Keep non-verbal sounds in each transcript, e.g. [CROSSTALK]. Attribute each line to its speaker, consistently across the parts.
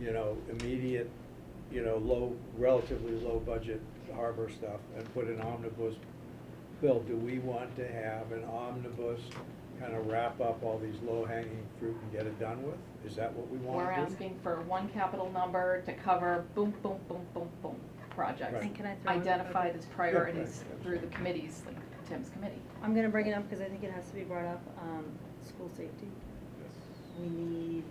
Speaker 1: you know, immediate, you know, low, relatively low budget harbor stuff and put an omnibus bill, do we want to have an omnibus kind of wrap up all these low hanging fruit and get it done with? Is that what we
Speaker 2: We're
Speaker 1: want to do?
Speaker 2: asking for one capital number to cover boom, boom, boom, boom, boom, projects.
Speaker 1: Right. And
Speaker 3: can I throw in-
Speaker 2: Identified as priorities
Speaker 1: Yeah, right.
Speaker 2: through the committees, like Tim's committee.
Speaker 3: I'm gonna bring it up because I think it has to be brought up, um, school safety. We need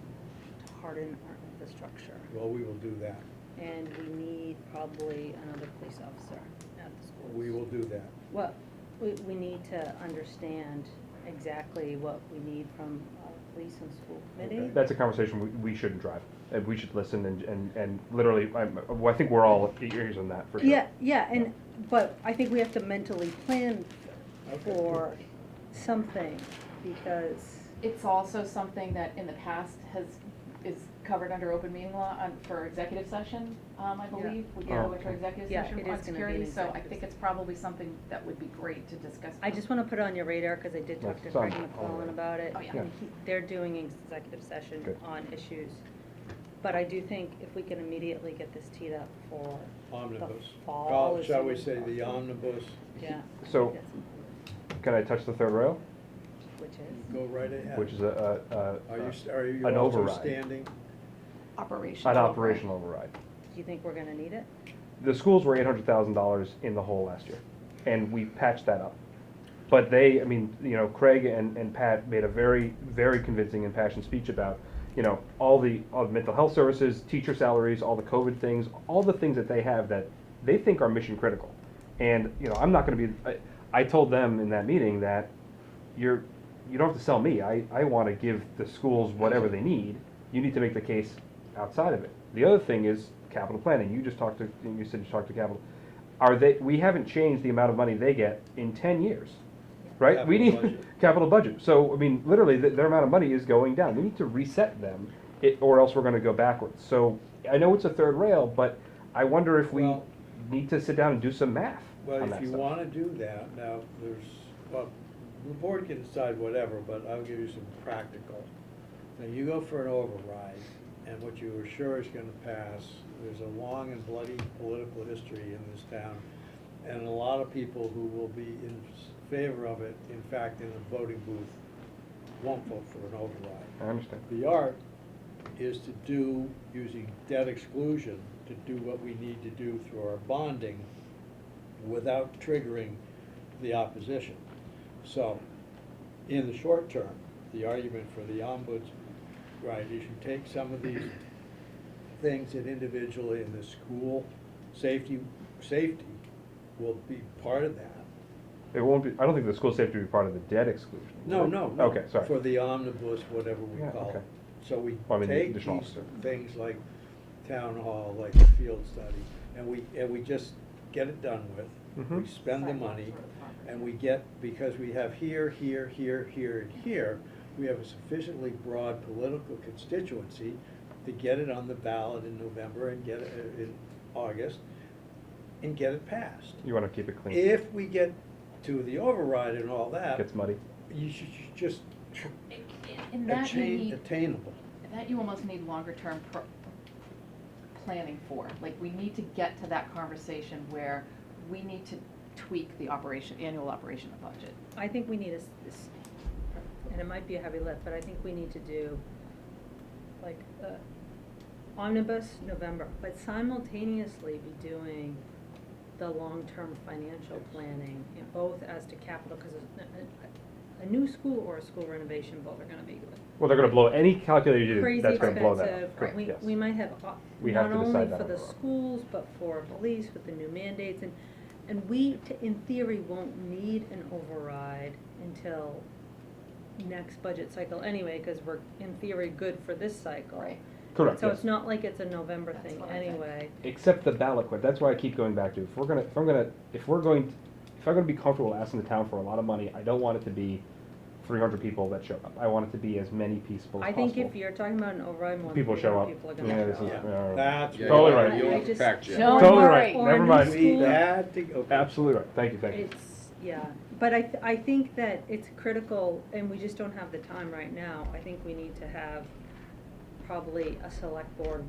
Speaker 3: to harden our infrastructure.
Speaker 1: Well, we will do that.
Speaker 3: And we need probably another police officer at the schools.
Speaker 1: We will do that.
Speaker 3: Well, we, we need to understand exactly what we need from our police and school committee.
Speaker 1: Okay.
Speaker 4: That's a conversation we, we shouldn't drive. Uh, We should listen and, and, and literally, I'm, well, I think we're all ears on that for sure.
Speaker 3: Yeah, yeah, and, but I think we have to mentally plan
Speaker 1: Okay.
Speaker 3: for something, because,
Speaker 2: It's also something that in the past has, is covered under open meeting law on, for executive session, um, I
Speaker 3: Yeah.
Speaker 2: believe. We
Speaker 4: Oh,
Speaker 2: go into
Speaker 4: okay.
Speaker 2: executive
Speaker 3: Yeah,
Speaker 2: session
Speaker 3: it is
Speaker 2: on
Speaker 3: gonna be an
Speaker 2: security, so I
Speaker 3: executive
Speaker 2: think
Speaker 3: session.
Speaker 2: it's probably something that would be great to discuss.
Speaker 3: I just wanna put it on your radar, cause I did talk to
Speaker 4: That's on-
Speaker 3: Craig
Speaker 4: alright.
Speaker 3: McClellan about it.
Speaker 2: Oh, yeah.
Speaker 3: and he- They're doing executive session
Speaker 4: Good.
Speaker 3: on issues, but I do think if we can immediately get this teed up for the
Speaker 1: Omnibus.
Speaker 3: fall.
Speaker 1: Oh,
Speaker 3: is
Speaker 1: Shall we
Speaker 3: something-
Speaker 1: say the omnibus?
Speaker 3: Yeah. I
Speaker 4: So-
Speaker 3: think that's-
Speaker 4: Can I touch the third rail,
Speaker 3: Which is,
Speaker 1: Go right ahead.
Speaker 4: which is a, a, a.
Speaker 1: Are you, s- are you
Speaker 4: an
Speaker 1: also
Speaker 4: override.
Speaker 1: standing?
Speaker 2: Operational.
Speaker 4: An operational override.
Speaker 3: do you think we're gonna need it?
Speaker 4: The schools were eight hundred thousand dollars in the hole last year, and we patched that up. But they, I mean, you know, Craig and, and Pat made a very, very convincing and passionate speech about, you know, all the, all the mental health services, teacher salaries, all the COVID things, all the things that they have that they think are mission critical. And, you know, I'm not gonna be, I, I told them in that meeting that you're, you don't have to sell me, I, I wanna give the schools whatever
Speaker 1: Mm-hmm.
Speaker 4: they need, you need to make the case outside of it. The other thing is capital planning, you just talked to, you said you talked to capital, are they, we haven't changed the amount of money they get in ten years, right? We
Speaker 1: Capital
Speaker 4: need,
Speaker 1: budget.
Speaker 4: [LAUGHS] capital budget, so, I mean, literally, th- their amount of money is going down, we need to reset them, it, or else we're gonna go backwards, so, I know it's a third rail, but I wonder if we
Speaker 1: Well-
Speaker 4: need to sit down and do some math
Speaker 1: Well,
Speaker 4: on
Speaker 1: if
Speaker 4: that
Speaker 1: you
Speaker 4: stuff.
Speaker 1: wanna do that, now, there's, well, the board can decide whatever, but I'll give you some practical. Now, you go for an override, and what you are sure is gonna pass, there's a long and bloody political history in this town, and a lot of people who will be in favor of it, in fact, in the voting booth, won't vote for an override.
Speaker 4: I understand.
Speaker 1: The art is to do, using debt exclusion, to do what we need to do through our bonding without triggering the opposition. So, in the short term, the argument for the ombuds, right, is you take some of these things that individually in the school, safety, safety will be part of that.
Speaker 4: It won't be, I don't think the school safety will be part of the debt exclusion. will
Speaker 1: No,
Speaker 4: it?
Speaker 1: no, no.
Speaker 4: Okay, sorry.
Speaker 1: For the uh, omnibus, whatever we
Speaker 4: Yeah,
Speaker 1: call
Speaker 4: okay.
Speaker 1: it. So we
Speaker 4: Well, I mean, the
Speaker 1: take
Speaker 4: additional
Speaker 1: these
Speaker 4: officer.
Speaker 1: things like town hall, like the field study, and we, and we just get it done with. We
Speaker 4: Mhm.
Speaker 1: spend the money, and we get, because we have here, here, here, here, and here, we have a sufficiently broad political constituency to get it on the ballot in November and get it uh, in August, and get it passed.
Speaker 4: You wanna keep it clean.
Speaker 1: If we get to the override and all that
Speaker 4: Gets muddy.
Speaker 1: you should ju- just tr-
Speaker 2: And that you
Speaker 1: attain,
Speaker 2: need,
Speaker 1: attainable.
Speaker 2: that you almost need longer term pro- planning for. Like, we need to get to that conversation where we need to tweak the operation, annual operation of budget.
Speaker 3: I think we need a, s- s- and it might be a heavy lift, but I think we need to do, like, uh, omnibus November, but simultaneously be doing the long-term financial planning, you know, both as to capital, because a, a new school or a school renovation, both are gonna be
Speaker 4: Well, they're gonna blow, any calculator you do,
Speaker 3: crazy
Speaker 4: that's gonna blow that.
Speaker 3: expensive.
Speaker 4: up. Correct,
Speaker 3: We,
Speaker 4: yes.
Speaker 3: we might have, op-
Speaker 4: We have
Speaker 3: not
Speaker 4: to decide
Speaker 3: only
Speaker 4: that
Speaker 3: for the
Speaker 4: overall.
Speaker 3: schools, but for police with the new mandates and, and we, t- in theory, won't need an override until next budget cycle anyway, cause we're in theory good for this cycle.
Speaker 2: Right.
Speaker 4: Correct,
Speaker 3: So it's
Speaker 4: yes.
Speaker 3: not like it's a November
Speaker 2: That's
Speaker 3: thing
Speaker 2: what I think.
Speaker 3: anyway.
Speaker 4: Except the ballot question, that's why I keep going back to, if we're gonna, if I'm gonna, if we're going, if I'm gonna be comfortable asking the town for a lot of money, I don't want it to be three hundred people that show up. I want it to be as many people
Speaker 3: I
Speaker 4: as
Speaker 3: think if
Speaker 4: possible.
Speaker 3: you're talking about an override, more than
Speaker 4: People show
Speaker 3: 300
Speaker 4: up.
Speaker 3: people are
Speaker 4: Yeah,
Speaker 3: gonna
Speaker 4: this
Speaker 3: show
Speaker 4: is-
Speaker 3: up.
Speaker 4: yeah.
Speaker 1: That's.
Speaker 5: Yeah,
Speaker 4: Totally
Speaker 1: what
Speaker 4: right.
Speaker 5: You'll
Speaker 3: I
Speaker 5: have to
Speaker 3: just-
Speaker 5: fact check.
Speaker 2: Don't
Speaker 4: Totally
Speaker 2: worry.
Speaker 4: right.
Speaker 3: Or
Speaker 4: Never
Speaker 3: new
Speaker 4: mind.
Speaker 1: We
Speaker 3: school.
Speaker 1: had to, okay.
Speaker 4: Absolutely right, thank you, thank you.
Speaker 3: It's, yeah, but I, th- I think that it's critical, and we just don't have the time right now, I think we need to have probably a select board